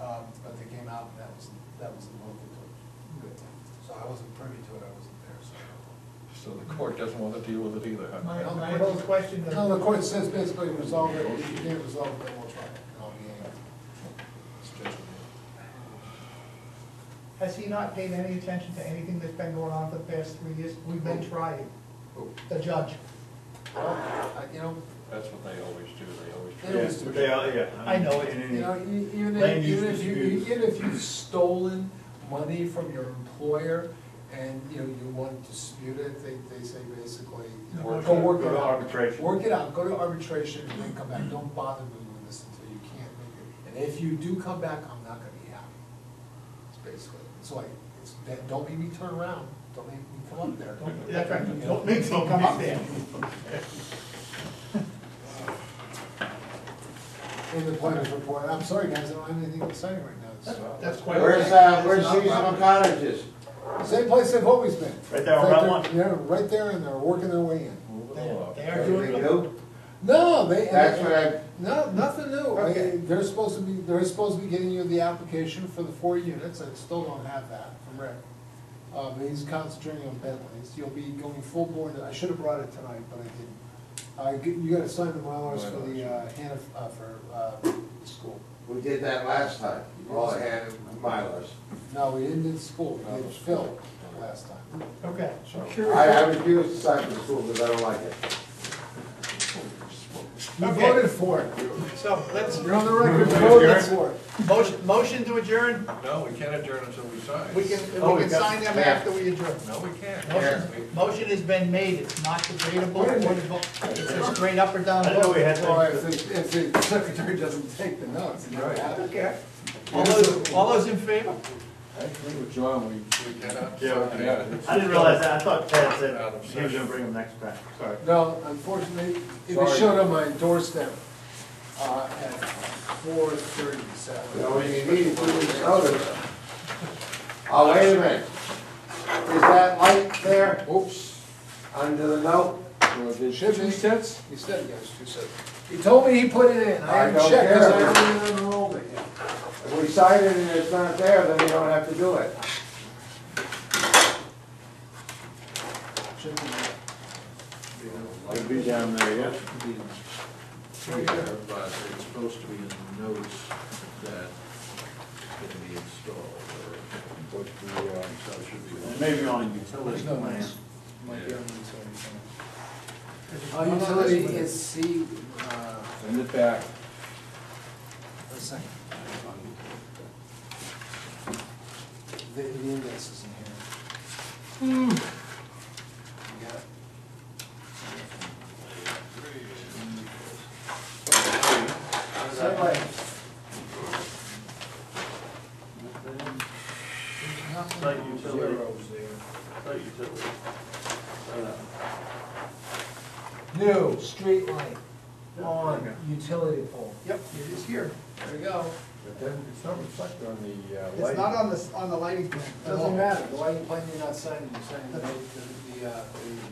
Um, out, that was, that was the local coach. So I wasn't privy to it, I wasn't there, so. I don't know. So the court doesn't want to deal with it either, huh? My, my whole question. No, the court says basically resolve it, if you can't resolve it, then we'll try it. No, we ain't. It's judgment. Has he not paid any attention to anything that's been going on for the past three years? We've been trying, Who? the judge. Well, I- You know, That's what they always do, they always They always try. do. They are, yeah. I know it. In any- you know, e- even Land if, use even if you, e-, disputes. even if you've stolen money from your employer and, you know, you want to dispute it, they, they say basically, you know, Work go it out. work it Go to out. arbitration. Work it out, go to arbitration and then come back, don't bother me with this until you can't make it. And if you do come back, I'm not gonna be happy. It's basically, it's like, it's, that- don't make me turn around, don't make me come up there. Don't- Yeah. That's right, don't make him come up there. In the planner's report, I'm sorry guys, I don't have anything exciting right now, so. That's quite. Where's, uh, where's seasonal cottages? Same place they've always been. Right there on It's like Route they're- Yeah, right there, and they're working their way in. Move it They along. they are Everything doing, new? No, they. That's what I- No, nothing new. Okay. They- They're supposed to be, they're supposed to be getting you the application for the four units, I still don't have that from Rick. Uh, but he's concentrating on Bentleys, you'll be going full board, I should have brought it tonight, but I didn't. Uh, you- you gotta sign the Mylars for the, uh, Hannah, uh, for, uh, school. We did that last time, all I had was milers. No, we didn't in school, we did Phil last time. okay. So- I, I refuse to sign for school because I don't like it. You Okay. voted for it, So let's, you're on the record, voted for it. motion, motion to adjourn, No, we can't adjourn until we sign. we can, Oh, we we can got- sign them after we adjourn. No, we can't. Yeah. We- Motion has been made, it's not debatable, or devo- it's just straight up or down I didn't know vote. we had Well, things. if the, if the secretary doesn't take the notes, you know, Right. Okay. All those, all those in favor? I agree with John, we, we cannot. Yeah, sign. we- Yeah. I didn't realize that, I thought Ted said he was gonna bring them next time, sorry. No, unfortunately, it Sorry. showed on my doorstep, uh, at four thirty Saturday. You know, when you need it, two weeks notice. Oh, wait a minute. Is that light there Oops, under the note? So did Should be. Two cents? he said, yes, he said, he told me he put it in, I I haven't don't checked, 'cause I care. haven't even unrolled it yet. If we sign it and it's not there, then you don't have to do it. Should be. I'll be down there, yeah. uh, But it's supposed to be in the notes that it's gonna be installed, or what the, uh, so it should be. on- Maybe on a utility no plan. notes. Might be on the Oh, utility. Uh, utility is C, uh, Send it back. a second. The, the index is in here. You got it? Same way. Site utility, site utility. Uh, New street light Okay. on utility pole. Yep, it is here. There we go. But then it's not reflected on the uh, It's not on the, on the lighting plan. at all. Doesn't matter, the lighting plan you're not signing, you're signing the, the, the, uh,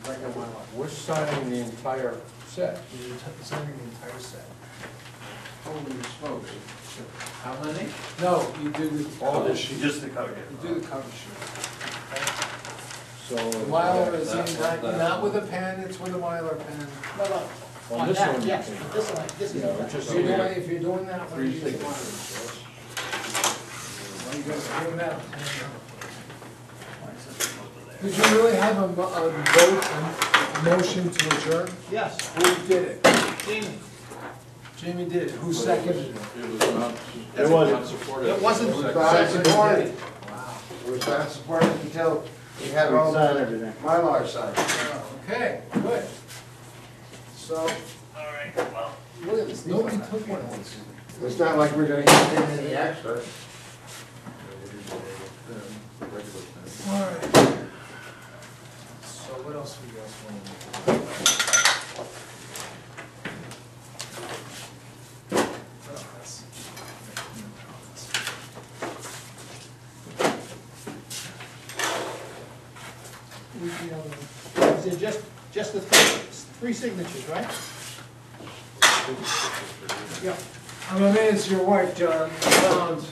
the regular one. We're signing the entire set. You're t- signing the entire set. Holy smokes. How many? No, you do the. All cover Oh, this sheet. Just the cover. You do the cover sheet. So. uh, The Mylar is That in, one, not, that not one. with a pen, it's with a Mylar pen. No, no, On on this that, one, yes, you can- this one, this is. Yeah, the- just- If you're doing, if you're doing that, one, you Three use the Mylar. signatures. Why you guys doing that? Did you really have a, mo- a vote, a motion to adjourn? Yes, Who did it? Jamie, Jamie did it. Who seconded it? It was not. It wasn't. not supported. it wasn't, It was not supported. Wow. It was not supported until we had all Sign the everything. mylar signed. Okay, good. So. All right, well. Look at this, nobody took one of these. It's not like we're gonna get any extra. All right. So what else we got? for you? Oh, that's- we, you know, is it just, just the three, three signatures, right? Yeah. I'm amazed your wife, John, Um, found